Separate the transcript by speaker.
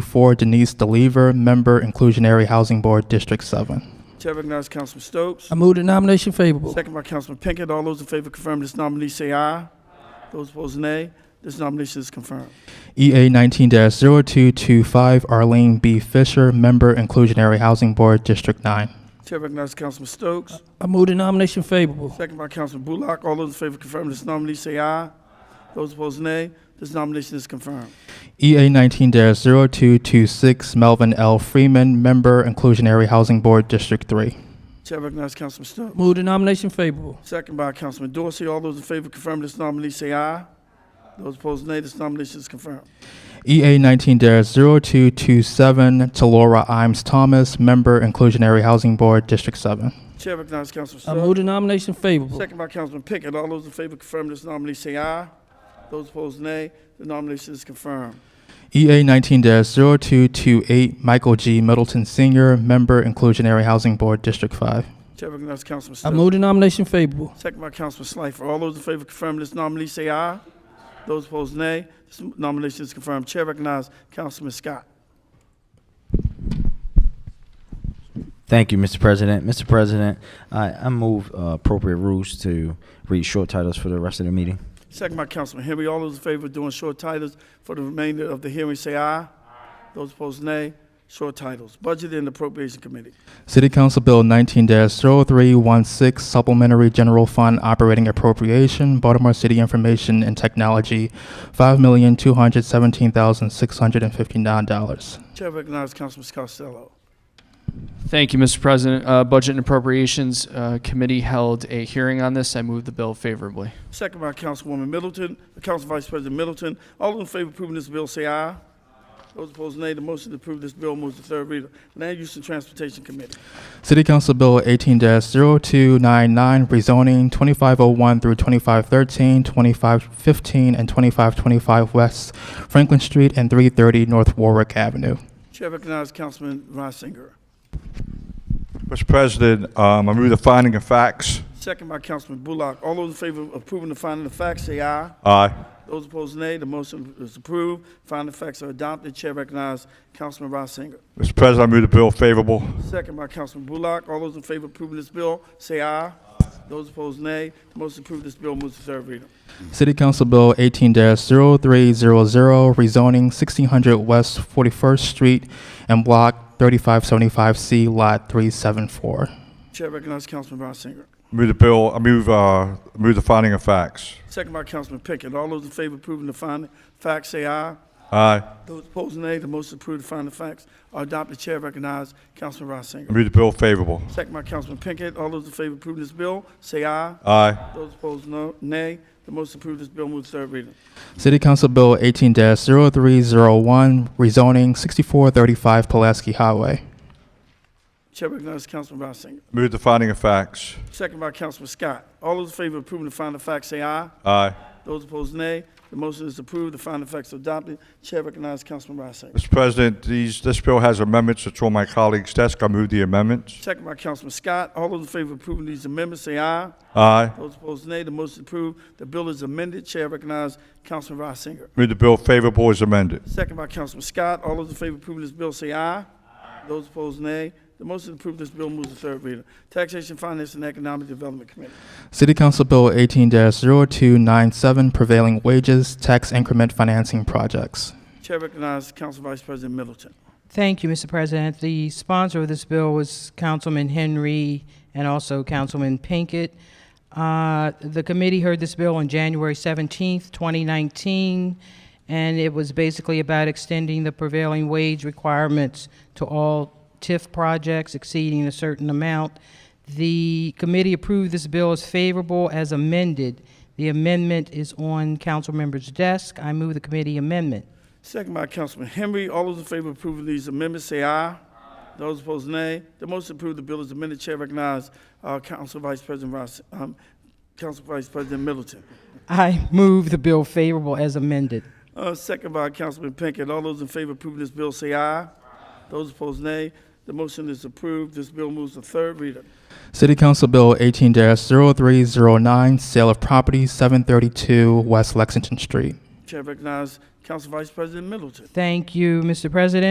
Speaker 1: For Denise DeLever, Member Inclusionary Housing Board, District 7.
Speaker 2: Chair recognizes Councilman Stokes.
Speaker 3: I move the nomination favorable.
Speaker 2: Second by Councilman Pinkett. All those in favor confirm this nominee say aye. Those opposed nay. This nomination is confirmed.
Speaker 1: EA 19-0225, Arlene B. Fisher, Member Inclusionary Housing Board, District 9.
Speaker 2: Chair recognizes Councilman Stokes.
Speaker 3: I move the nomination favorable.
Speaker 2: Second by Councilman Bullock. All those in favor confirm this nominee say aye. Those opposed nay. This nomination is confirmed.
Speaker 1: EA 19-0226, Melvin L. Freeman, Member Inclusionary Housing Board, District 3.
Speaker 2: Chair recognizes Councilman Stokes.
Speaker 3: Move the nomination favorable.
Speaker 2: Second by Councilman Dorsey. All those in favor confirm this nominee say aye. Those opposed nay. This nomination is confirmed.
Speaker 1: EA 19-0227, Talora Imes Thomas, Member Inclusionary Housing Board, District 7.
Speaker 2: Chair recognizes Councilman
Speaker 3: I
Speaker 2: Stokes.
Speaker 3: move the nomination favorable.
Speaker 2: Second by Councilman Pickett. All those in favor confirm this nominee say aye. Those opposed nay. The nomination is confirmed.
Speaker 1: EA 19-0228, Michael G. Middleton Sr., Member Inclusionary Housing Board, District 5.
Speaker 2: Chair recognizes Councilman
Speaker 3: I
Speaker 2: Stokes.
Speaker 3: move the nomination favorable.
Speaker 2: Second by Councilman Slifer. All those in favor confirm this nominee say aye. Those opposed nay. This nomination is confirmed. Chair recognizes Councilman Scott.
Speaker 4: Thank you, Mr. President. Mr. President, I, I move uh, appropriate rules to read short titles for the rest of the meeting.
Speaker 2: Second by Councilman Henry. All those in favor of doing short titles for the remainder of the hearing say aye. Those opposed nay. Short titles. Budget and Appropriation Committee.
Speaker 1: City Council Bill 19-0316, Supplementary General Fund Operating Appropriation, Baltimore City Information and Technology, $5,217,659.
Speaker 2: Chair recognizes Councilman Costello.
Speaker 5: Thank you, Mr. President. Uh, Budget and Appropriations uh, Committee held a hearing on this. I move the bill favorably.
Speaker 2: Second by Councilwoman Middleton, Council Vice President Middleton. All those in favor of approving this bill say aye. Those opposed nay. The motion to approve this bill moves to third reader. Land Use and Transportation Committee.
Speaker 1: City Council Bill 18-0299, Rezoning 2501 through 2513, 2515, and 2525 West Franklin Street and 330 North Warwick Avenue.
Speaker 2: Chair recognizes Councilman Reisinger.
Speaker 6: Mr. President, um, I move the finding of facts.
Speaker 2: Second by Councilman Bullock. All those in favor of approving the finding of facts say aye.
Speaker 6: Aye.
Speaker 2: Those opposed nay. The motion is approved. Finding of facts are adopted. Chair recognizes Councilman Reisinger.
Speaker 6: Mr. President, I move the bill favorable.
Speaker 2: Second by Councilman Bullock. All those in favor of approving this bill say aye. Those opposed nay. The motion to approve this bill moves to third reader.
Speaker 1: City Council Bill 18-0300, rezoning 1600 West 41st Street and Block 3575C, Lot 374.
Speaker 2: Chair recognizes Councilman Reisinger.
Speaker 6: Move the bill, I move, uh, move the finding of facts.
Speaker 2: Second by Councilman Pickett. All those in favor of approving the finding facts say aye.
Speaker 6: Aye.
Speaker 2: Those opposed nay. The motion to approve the finding facts are adopted. Chair recognizes Councilman
Speaker 6: I
Speaker 2: Reisinger.
Speaker 6: move the bill favorable.
Speaker 2: Second by Councilman Pickett. All those in favor of approving this bill say aye.
Speaker 6: Aye.
Speaker 2: Those opposed no, nay. The motion to approve this bill moves to third reading.
Speaker 1: City Council Bill 18-0301, rezoning 6435 Pulaski Highway.
Speaker 2: Chair recognizes Councilman Reisinger.
Speaker 6: Move the finding of facts.
Speaker 2: Second by Councilman Scott. All those in favor of approving the finding facts say aye.
Speaker 6: Aye.
Speaker 2: Those opposed nay. The motion is approved. The finding facts are adopted. Chair recognizes Councilman Reisinger.
Speaker 6: Mr. President, these, this bill has amendments. It's on my colleague's desk. I move the amendments.
Speaker 2: Second by Councilman Scott. All those in favor of approving these amendments say aye.
Speaker 6: Aye.
Speaker 2: Those opposed, nay. The motion is approved. The bill is amended. Chair recognizes Councilman Reisinger.
Speaker 6: Move the bill favorable as amended.
Speaker 2: Second by Councilman Scott. All those in favor of approving this bill say aye. Those opposed, nay. The motion to approve this bill moves to third reader. Taxation, Finance, and Economic Development Committee.
Speaker 1: City Council Bill 18-0297, prevailing wages, tax increment financing projects.
Speaker 2: Chair recognizes Council Vice President Middleton.
Speaker 7: Thank you, Mr. President. The sponsor of this bill was Councilman Henry and also Councilman Pinkett. Uh, The committee heard this bill on January 17th, 2019, and it was basically about extending the prevailing wage requirements to all TIF projects exceeding a certain amount. The committee approved this bill as favorable as amended. The amendment is on council members' desk. I move the committee amendment.
Speaker 2: Second by Councilman Henry. All those in favor of approving these amendments say aye. Those opposed, nay. The motion to approve the bill is amended. Chair recognizes uh, Council Vice President Reis- um, Council Vice President Middleton.
Speaker 7: I move the bill favorable as amended.
Speaker 2: Uh, second by Councilman Pinkett. All those in favor of approving this bill say aye. Those opposed, nay. The motion is approved. This bill moves to third reader.
Speaker 1: City Council Bill 18-0309, sale of property, 732 West Lexington Street.
Speaker 2: Chair recognizes Council Vice President Middleton.
Speaker 7: Thank you, Mr. President.